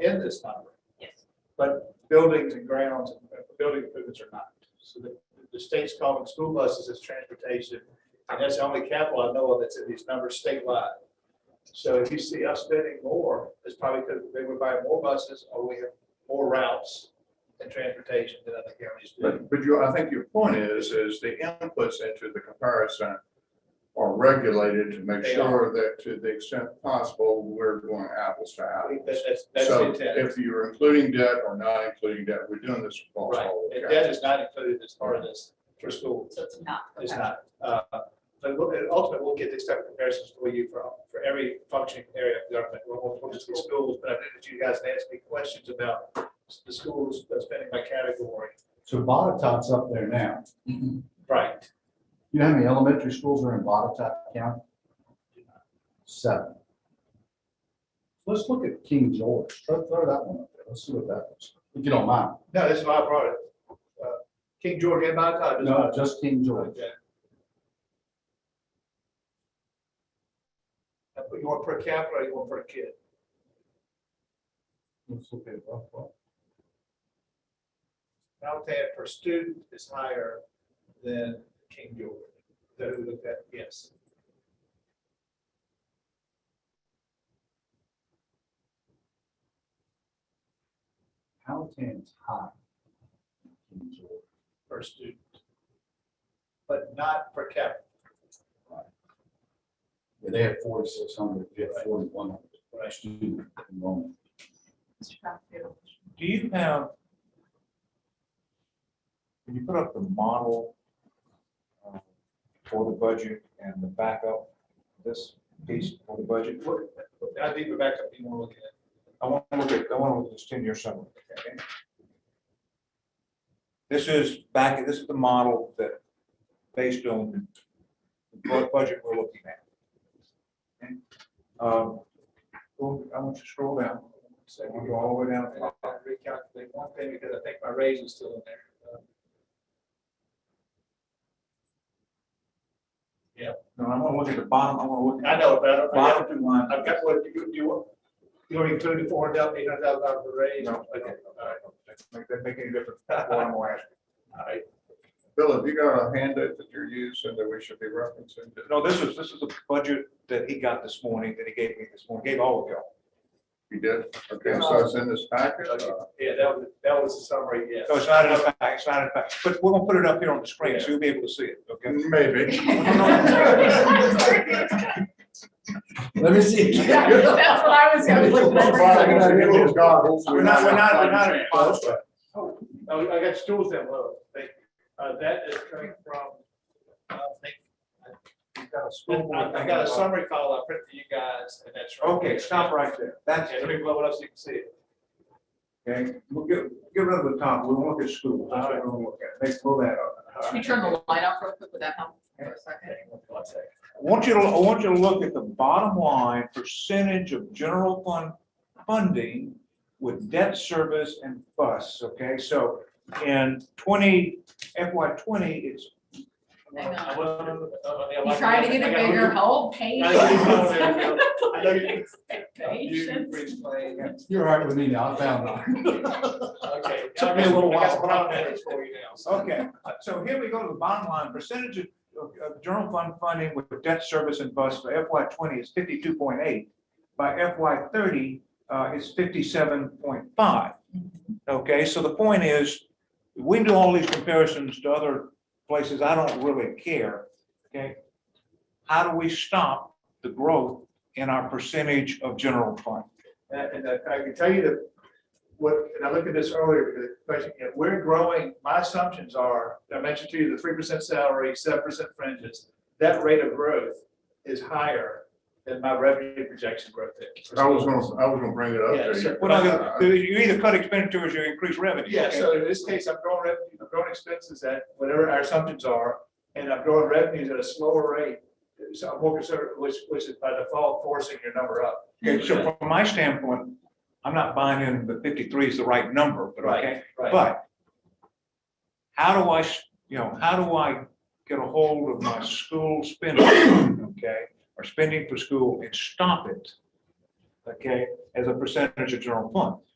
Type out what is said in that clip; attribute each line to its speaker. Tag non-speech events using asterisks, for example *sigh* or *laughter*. Speaker 1: in this number,
Speaker 2: Yes.
Speaker 1: but buildings and grounds, and uh, building improvements are not. So the, the state's calling school buses as transportation, and that's the only capital I know of that's in these numbers statewide. So if you see us spending more, it's probably because they were buying more buses, or we have more routes and transportation than other counties do.
Speaker 3: But, but you, I think your point is, is the inputs into the comparison are regulated to make
Speaker 1: They
Speaker 3: sure that to the extent possible, we're going apples to
Speaker 1: I
Speaker 3: apples.
Speaker 1: think that's, that's, that's the
Speaker 3: So
Speaker 1: intent.
Speaker 3: if you're including debt or not including debt, we're doing this across
Speaker 1: Right,
Speaker 3: all the
Speaker 1: and
Speaker 3: counties.
Speaker 1: that is not included as part of this for school.
Speaker 2: So it's not.
Speaker 1: It's
Speaker 2: okay.
Speaker 1: not. Uh, But we'll- and ultimately, we'll get these type of comparisons for you for, for every functioning area of government. We'll, we'll focus on schools, but I think that you guys asked me questions about the schools uh, spending by category.
Speaker 4: So Botetourt's up there now.
Speaker 3: Mm-hmm.
Speaker 1: Right.
Speaker 4: You know how many elementary schools are in Botetourt County? Seven. Let's look at King George. Throw, throw that one up there. Let's see what that is. If you don't mind.
Speaker 1: No, that's why I brought it. Uh, King George and Mount Todd.
Speaker 4: No, just King George.
Speaker 1: But you want per capita or you want per kid?
Speaker 4: Let's look at it up, up.
Speaker 1: Mount Tad per student is higher than King George. Is That who looked at, yes.
Speaker 4: Powhatan's high. King George.
Speaker 1: per student. But not per capita.
Speaker 4: Yeah, they have forty-six hundred, we have forty-one
Speaker 1: Right.
Speaker 4: hundred student enrollment.
Speaker 2: Mr.
Speaker 1: *laughs*
Speaker 2: Cockfield.
Speaker 5: Do you have? Can you put up the model uh, for the budget and the backup, this piece for the budget?
Speaker 1: What- I think the backup you want to look at.
Speaker 5: I want to look at, I want to look at this ten-year summary. okay? This is back, this is the model that, based on the bu- budget we're looking at. Okay? Um, go- I want you to scroll down,
Speaker 1: So
Speaker 5: you go all the way down.
Speaker 1: And I'll Recalculate one thing because I think my raise is still in there. Uh,
Speaker 5: No, I want to look at the bottom, I want to look
Speaker 1: Uh, I
Speaker 5: at
Speaker 1: know, but I don't-
Speaker 5: the
Speaker 1: I
Speaker 5: bottom
Speaker 1: got-
Speaker 5: two lines.
Speaker 1: I've got what, you, do you want, you already included the four hundred thousand, eight hundred thousand dollars for raise?
Speaker 5: No.
Speaker 1: Okay, all right.
Speaker 5: Make that make any difference? Well, I'm gonna ask you.
Speaker 1: All right.
Speaker 3: Bill, have you got a handout that you're using that we should be referencing?
Speaker 5: No, this is, this is a budget that he got this morning, that he gave me this morning, gave all of y'all.
Speaker 3: You did? Okay, so it's in this packet? Uh,
Speaker 1: Yeah, that was, that was the summary, yes.
Speaker 5: So it's not in the back, it's not in the back, but we're gonna put it up here on the screen, so you'll be able to see it, okay?
Speaker 2: *laughs*
Speaker 3: Maybe.
Speaker 4: Let me see.
Speaker 2: That's what I was gonna look
Speaker 4: Right.
Speaker 2: at.
Speaker 5: We're not, we're not, we're not. in policy.
Speaker 1: Oh, I got stools that low. Thank you. Uh, that is coming from, uh, thank
Speaker 5: You've got a school board
Speaker 1: I I
Speaker 5: thing
Speaker 1: got a
Speaker 5: about-
Speaker 1: summary file I printed for you guys, and that's. right
Speaker 5: Okay,
Speaker 1: there.
Speaker 5: stop right there, that's
Speaker 1: Okay, let
Speaker 5: it,
Speaker 1: me blow it up so you can see it.
Speaker 5: okay? We'll get, get rid of the top, we'll look at school, that's what we're gonna look at, let's pull that up.
Speaker 2: Should we turn the light off real quick? Would that help for a second?
Speaker 1: One second.
Speaker 5: I want you to, I want you to look at the bottom line percentage of general fund funding with debt service and bus, okay? So in twenty, FY twenty, it's.
Speaker 2: Hang on.
Speaker 1: I wasn't- uh, yeah,
Speaker 2: You
Speaker 1: like-
Speaker 2: trying to get
Speaker 1: I
Speaker 2: it
Speaker 1: got-
Speaker 2: bigger, hold
Speaker 1: I
Speaker 2: patience. *laughs*
Speaker 1: know you- I know you- you- you
Speaker 2: Patience.
Speaker 1: explain.
Speaker 4: You're right with me now. I found that.
Speaker 1: Okay.
Speaker 5: Took me a little
Speaker 1: I got some
Speaker 5: while.
Speaker 1: comments for you now. so.
Speaker 5: Okay, so here we go to the bottom line, percentage of, of- of general fund funding with debt service and bus for FY twenty is fifty-two point eight. By FY thirty, uh, is fifty-seven point five. Okay, so the point is, we can do all these comparisons to other places, I don't really care, okay? How do we stop the growth in our percentage of general fund?
Speaker 1: And and I I can tell you that, what, and I looked at this earlier, because the question, you know, we're growing, my assumptions are, I mentioned to you the three percent salary, seven percent fringes. That rate of growth is higher than my revenue projection growth is.
Speaker 3: I was gonna, I was gonna bring it up
Speaker 1: Yeah,
Speaker 3: to
Speaker 1: sure.
Speaker 3: you.
Speaker 5: We're not gonna- you either cut expenditures or increase revenue.
Speaker 1: Yeah,
Speaker 5: okay?
Speaker 1: so in this case, I'm growing revenue, I'm growing expenses at whatever our assumptions are, and I'm growing revenues at a slower rate. So I'm more conservative, which, which is by default forcing your number up.
Speaker 5: Okay, so from my standpoint, I'm not buying in the fifty-three is the right number, but okay,
Speaker 1: Right.
Speaker 5: but how do I, s- you know, how do I get a hold of my school spending, okay, or spending for school and stop it? Okay, as a percentage of general fund.